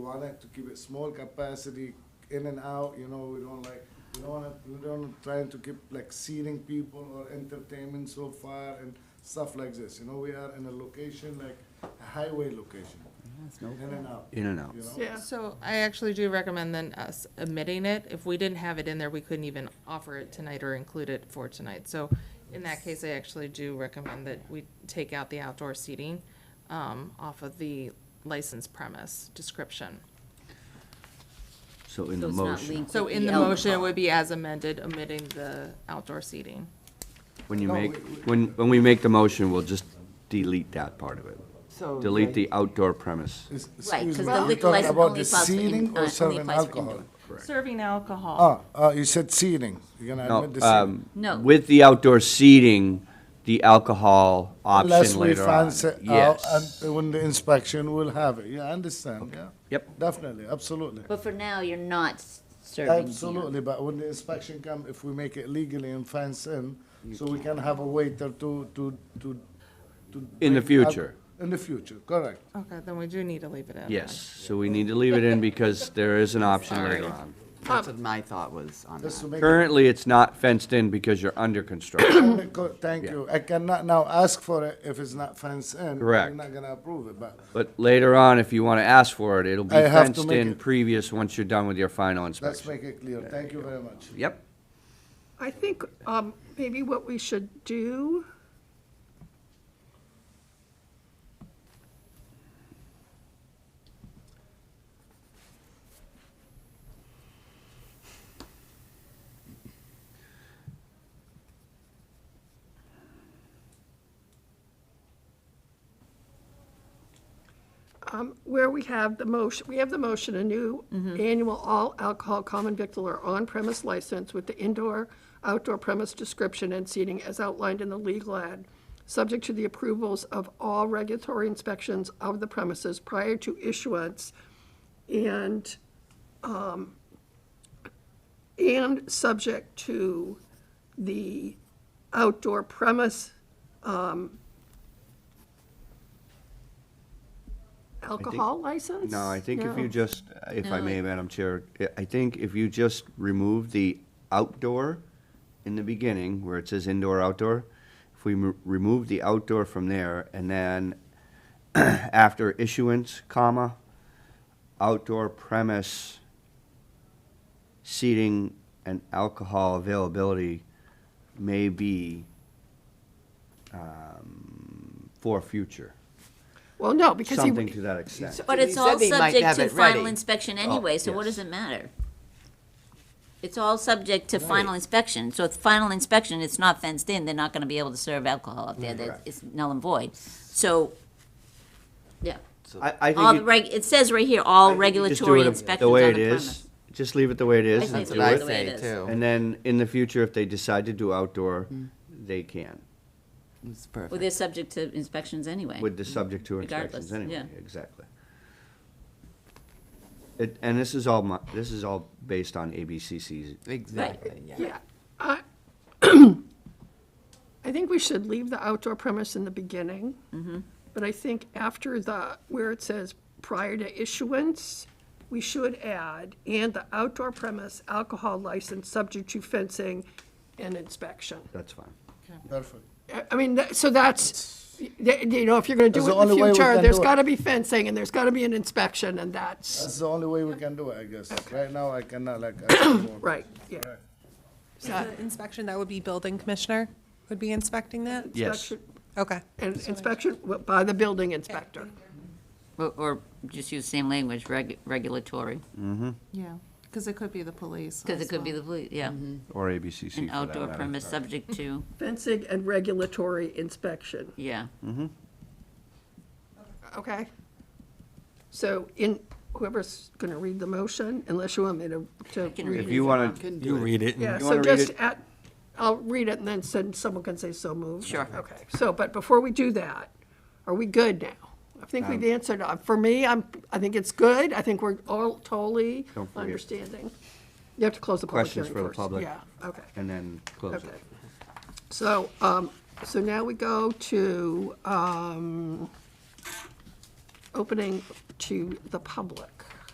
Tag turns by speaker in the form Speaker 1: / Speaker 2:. Speaker 1: We want it to keep it small capacity, in and out, you know, we don't like, we don't wanna, we don't trying to keep like seating people or entertainment so far and stuff like this, you know, we are in a location like a highway location, in and out,
Speaker 2: In and out.
Speaker 1: you know?
Speaker 3: Yeah.
Speaker 4: So I actually do recommend then us omitting it. If we didn't have it in there, we couldn't even offer it tonight or include it for tonight. So in that case, I actually do recommend that we take out the outdoor seating um, off of the license premise description.
Speaker 2: So in the
Speaker 5: So it's not
Speaker 2: motion,
Speaker 5: linked
Speaker 4: So
Speaker 5: with
Speaker 4: in the motion, it
Speaker 5: alcohol.
Speaker 4: would be as amended, omitting the outdoor seating.
Speaker 2: when you
Speaker 1: No,
Speaker 2: make,
Speaker 1: we- we-
Speaker 2: when, when we make the motion, we'll just delete that part of it.
Speaker 6: So.
Speaker 2: Delete the outdoor premise.
Speaker 1: It's-
Speaker 5: Right,
Speaker 1: excuse
Speaker 5: 'cause
Speaker 1: me,
Speaker 5: the
Speaker 1: you
Speaker 5: liquor
Speaker 1: talking
Speaker 5: license
Speaker 1: about
Speaker 5: only
Speaker 1: the
Speaker 5: applies for in-
Speaker 1: seating
Speaker 5: uh,
Speaker 1: or
Speaker 5: only
Speaker 1: serving
Speaker 5: applies for
Speaker 1: alcohol?
Speaker 5: indoor.
Speaker 4: Serving alcohol.
Speaker 1: Ah, uh, you said seating, you're gonna
Speaker 2: No,
Speaker 1: admit the seating.
Speaker 2: um,
Speaker 5: No.
Speaker 2: With the outdoor seating, the alcohol
Speaker 1: Unless
Speaker 2: option
Speaker 1: we uh,
Speaker 2: later on.
Speaker 1: find it out,
Speaker 2: Yes.
Speaker 1: and when the inspection, we'll have it, yeah, I understand, yeah?
Speaker 2: Yep.
Speaker 1: Definitely, absolutely.
Speaker 5: But for now, you're not s- serving. beer.
Speaker 1: Absolutely, but when the inspection come, if we make it legally and fence in, so we can have a waiter to, to, to, to.
Speaker 2: In the
Speaker 1: bring up-
Speaker 2: future.
Speaker 1: In the future, correct.
Speaker 4: Okay, then we do need to leave it
Speaker 1: uh,
Speaker 4: in.
Speaker 2: Yes, so we need to leave it in because there is an option later on.
Speaker 6: That's
Speaker 5: Um,
Speaker 6: what my thought was on
Speaker 1: Just to
Speaker 6: that.
Speaker 1: make.
Speaker 2: Currently, it's not fenced in because you're under construction.
Speaker 1: Co- Thank
Speaker 2: Yeah.
Speaker 1: you. I cannot now ask for it if it's not fenced in.
Speaker 2: Correct.
Speaker 1: I'm not gonna approve it, but
Speaker 2: But later on, if you want to ask for it, it'll be
Speaker 1: I have to
Speaker 2: fenced
Speaker 1: make
Speaker 2: in
Speaker 1: it-
Speaker 2: previous, once you're done with your final
Speaker 1: let's
Speaker 2: inspection.
Speaker 1: make it clear. Thank you very much.
Speaker 2: Yep,
Speaker 3: I think um, maybe what we should do, um, where we have the motion, we have the motion, a new annual all alcohol common victular on-premise license with the indoor, outdoor premise description and seating as outlined in the legal ad, subject to the approvals of all regulatory inspections of the premises prior to issuance and, um, and subject to the outdoor premise, um, alcohol license?
Speaker 2: no, I think if
Speaker 3: No.
Speaker 2: you just, if I may, Madam Chair, I- I think if you just remove the outdoor in the beginning, where it says indoor, outdoor, if we mo- remove the outdoor from there, and then after issuance, comma, outdoor premise seating and alcohol availability may be um, for future,
Speaker 3: Well, no, because he.
Speaker 2: something to that extent.
Speaker 5: But
Speaker 6: He
Speaker 5: it's
Speaker 6: said
Speaker 5: all
Speaker 6: they might
Speaker 5: subject
Speaker 6: have
Speaker 5: to
Speaker 6: it
Speaker 5: final
Speaker 6: ready.
Speaker 5: inspection anyway, so what
Speaker 2: Oh, yes.
Speaker 5: does it matter? It's all subject to final inspection, so it's final inspection, it's not fenced in, they're not gonna be able to serve alcohol up there, that,
Speaker 2: Correct.
Speaker 5: it's null and void. So, yeah,
Speaker 2: I, I think.
Speaker 5: all the
Speaker 2: it-
Speaker 5: reg, it says right here, all
Speaker 2: I think you just do
Speaker 5: regulatory
Speaker 2: it
Speaker 5: inspections
Speaker 2: The
Speaker 5: on the
Speaker 2: way it
Speaker 5: premise.
Speaker 2: is, just leave it the way it
Speaker 5: I
Speaker 2: is
Speaker 5: think
Speaker 2: and
Speaker 6: That's
Speaker 5: it's
Speaker 2: do
Speaker 6: what I
Speaker 5: the way it
Speaker 6: say
Speaker 5: is.
Speaker 6: too.
Speaker 2: And then in the future, if they decide to do outdoor,
Speaker 5: Hmm.
Speaker 2: they can,
Speaker 6: It's
Speaker 5: Well,
Speaker 6: perfect.
Speaker 5: they're subject to inspections anyway.
Speaker 2: with the subject to inspections
Speaker 5: Regardless,
Speaker 2: anyway,
Speaker 5: yeah.
Speaker 2: exactly. It, and this is all my, this is all based on ABCC's,
Speaker 6: Exactly, yeah.
Speaker 3: Yeah, I, I think we should leave the outdoor premise in the beginning. But I think after the, where it says prior to issuance, we should add, and the outdoor premise alcohol license subject to fencing and inspection.
Speaker 2: that's fine.
Speaker 1: Perfect.
Speaker 3: I- I mean, that- so that's, y- you know, if you're gonna do
Speaker 1: That's
Speaker 3: it
Speaker 1: the
Speaker 3: in the
Speaker 1: only way we
Speaker 3: future,
Speaker 1: can
Speaker 3: there's
Speaker 1: do it.
Speaker 3: gotta be fencing and there's gotta be an inspection and that's,
Speaker 1: That's the only way we can do it, I guess. Right now, I cannot like. ask for more.
Speaker 3: right, yeah.
Speaker 7: The Inspection, that would be building commissioner would be inspecting that?
Speaker 2: Yes,
Speaker 3: Inspection-
Speaker 7: Okay.
Speaker 3: And inspection w- by the building inspector.
Speaker 5: Or, or just use same language, reg, regulatory,
Speaker 4: Yeah, because it could be the police.
Speaker 5: because it could be the, police. yeah,
Speaker 6: Mm-hmm.
Speaker 2: or ABCC for
Speaker 5: an
Speaker 2: that
Speaker 5: outdoor
Speaker 2: matter.
Speaker 5: premise subject to,
Speaker 3: Fencing and regulatory inspection,
Speaker 5: yeah.
Speaker 3: okay? So in, whoever's going to read the motion, unless you want me to, to
Speaker 5: can
Speaker 3: read
Speaker 5: read
Speaker 2: If
Speaker 3: it.
Speaker 2: you wanna,
Speaker 6: You read it.
Speaker 3: Yeah,
Speaker 2: you
Speaker 3: so
Speaker 2: wanna read
Speaker 3: just
Speaker 2: it?
Speaker 3: at, I'll read it and then send, someone can say so moved.
Speaker 5: Sure.
Speaker 3: Okay, so, but before we do that, are we good now? I think we've
Speaker 2: Um,
Speaker 3: answered, uh, for me, I'm, I think it's good, I think we're all totally
Speaker 2: Don't forget.
Speaker 3: understanding. You have to close the public
Speaker 2: Questions
Speaker 3: hearing
Speaker 2: for the
Speaker 3: first.
Speaker 2: public.
Speaker 3: Yeah, okay.
Speaker 2: and then close it.
Speaker 3: Okay. So, um, so now we go to, um, opening to the public.